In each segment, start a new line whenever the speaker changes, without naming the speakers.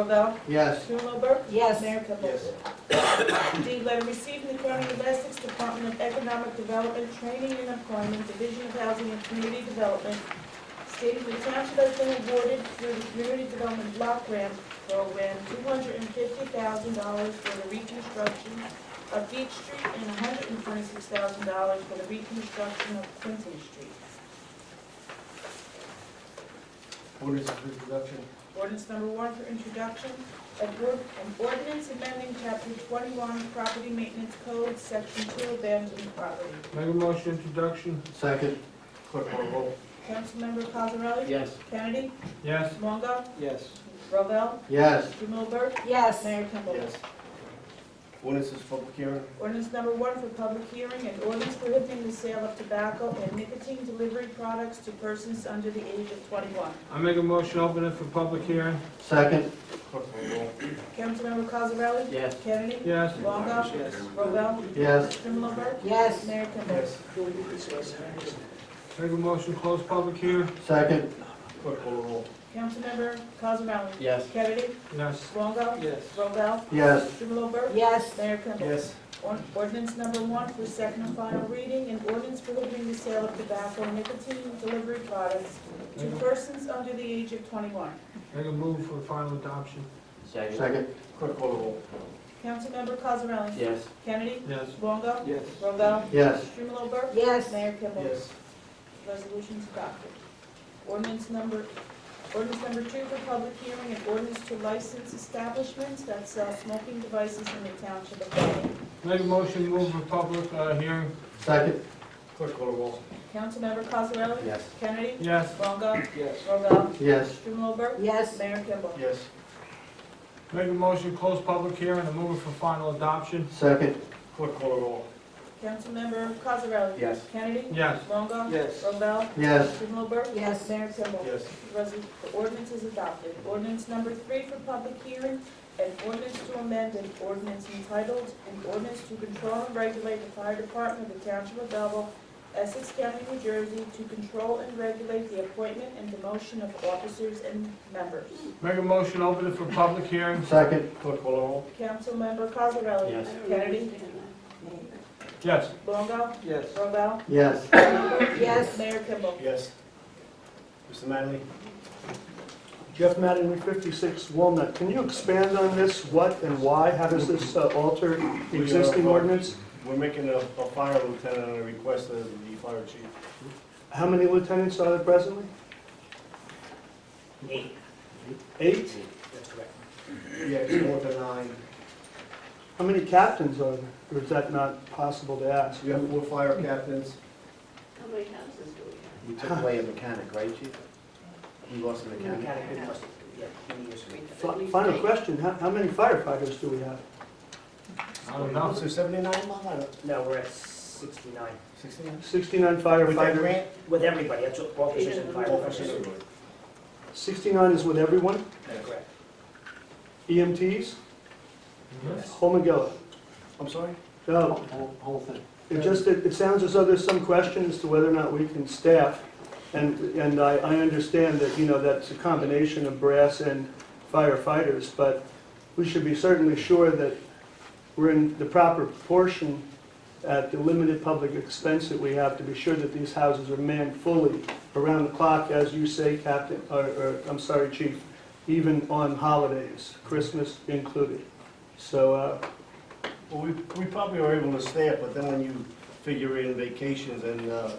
Robel?
Yes.
Trumover?
Yes.
Mayor Kibble? D, letter received from the County of Essex Department of Economic Development, Training and Employment, Division of Housing and Community Development, stating the township has been awarded through the Community Development Block Grant Program, two hundred and fifty thousand dollars for the reconstruction of Beach Street and hundred and twenty-six thousand dollars for the reconstruction of Quincy Street.
Orders of introduction.
Ordinance number one for introduction, a group, an ordinance amending chapter twenty-one, property maintenance code, section two, abandoned property.
Make a motion introduction?
Second. Clerk will roll.
Councilmember Cosarelli?
Yes.
Kennedy?
Yes.
Longo?
Yes.
Rovell?
Yes.
Strumelberg?
Yes.
Mayor Kimball?
Orders is public hearing.
Ordinance number one for public hearing, an ordinance prohibiting the sale of tobacco and nicotine delivery products to persons under the age of twenty-one.
I make a motion open it for public hearing?
Second. Clerk will roll.
Councilmember Cosarelli?
Yes.
Kennedy?
Yes.
Longo? Rovell?
Yes.
Strumelberg?
Yes.
Mayor Kimball?
Make a motion close public hearing?
Second. Clerk will roll.
Councilmember Cosarelli?
Yes.
Kennedy?
Yes.
Longo?
Yes.
Robel?
Yes.
Strumelberg?
Yes.
Mayor Kimball?
Yes.
On- Ordinance number one for second and final reading, an ordinance prohibiting the sale of tobacco and nicotine delivery products to persons under the age of twenty-one.
Make a move for final adoption?
Second.
Second. Clerk will roll.
Councilmember Cosarelli?
Yes.
Kennedy?
Yes.
Longo?
Yes.
Robel?
Yes.
Strumelberg?
Yes.
Mayor Kimball? Resolution's adopted. Ordinance number, ordinance number two for public hearing, an ordinance to license establishments that sell smoking devices in the township of Nutley.
Make a motion move for public uh, hearing?
Second. Clerk will roll.
Councilmember Cosarelli?
Yes.
Kennedy?
Yes.
Longo?
Yes.
Robel?
Yes.
Strumelberg?
Yes.
Mayor Kimball?
Yes.
Make a motion close public hearing and move it for final adoption?
Second. Clerk will roll.
Councilmember Cosarelli?
Yes.
Kennedy?
Yes.
Longo?
Yes.
Robel?
Yes.
Strumelberg?
Yes.
Mayor Kimball?
Yes.
Resol- The ordinance is adopted. Ordinance number three for public hearing, an ordinance to amend an ordinance entitled, an ordinance to control and regulate the fire department of the township of Belleville, Essex County, New Jersey, to control and regulate the appointment and demotion of officers and members.
Make a motion open it for public hearing?
Second. Clerk will roll.
Councilmember Cosarelli?
Yes.
Kennedy?
Yes.
Longo?
Yes.
Robel?
Yes.
Yes.
Mayor Kimball?
Yes. Mr. Manley?
Jeff Madden, Route 56 Walnut. Can you expand on this? What and why? How does this uh, alter the existing ordinance?
We're making a, a fire lieutenant on a request of the fire chief.
How many lieutenants are there presently? Eight. Eight?
Yeah, it's more than nine.
How many captains are there? Or is that not possible to ask?
We have four fire captains.
How many houses do we have?
We took away a mechanic, right, chief? We lost a mechanic.
Fi- Final question, how how many firefighters do we have?
I don't know.
So seventy-nine, Mom, I don't-
No, we're at sixty-nine.
sixty-nine?
69
With that
firefighters?
grant, with everybody, that's what officers and
Officers.
firefighters.
69 is with everyone? E
Correct.
EMTs?
Yes.
Homegilla?
I'm sorry?
No,
Whole, whole thing.
It just, it it sounds as though there's some question as to whether or not we can staff, and, and I, I understand that, you know, that's a combination of brass and firefighters, but we should be certainly sure that we're in the proper proportion at the limited public expense that we have to be sure that these houses are manned fully around the clock, as you say, Captain, or, or, I'm sorry, Chief, even on holidays, Christmas included. So, uh,
Well, we, we probably are able to stay up, but then when you figure in vacations and, uh,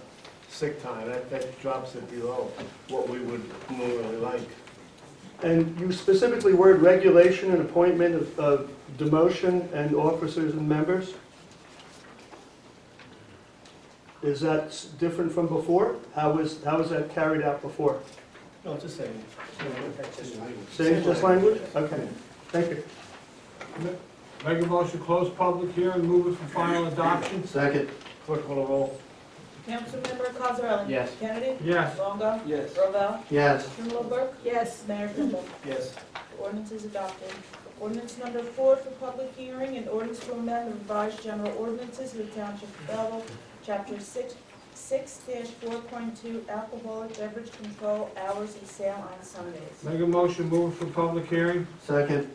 sick time, that, that drops it below what we would normally like.
And you specifically word regulation and appointment of- of demotion and officers and members? Is that s- different from before? How was, how was that carried out before?
No, just saying.
That's just-
Same, just language? Okay, thank you.
Make a motion close public hearing, move it for final adoption?
Second. Clerk will roll.
Councilmember Cosarelli?
Yes.
Kennedy?
Yes.
Longo?
Yes.
Robel?
Yes.
Strumelberg?
Yes.
Mayor Kimball?
Yes.
The Ordinance is adopted. Ordinance number four for public hearing, an ordinance to amend the revised general ordinances of the Township of Belleville, Chapter six, six four point two alcoholic beverage control hours and sale on Sundays.
Make a motion, move it for public hearing.
Second.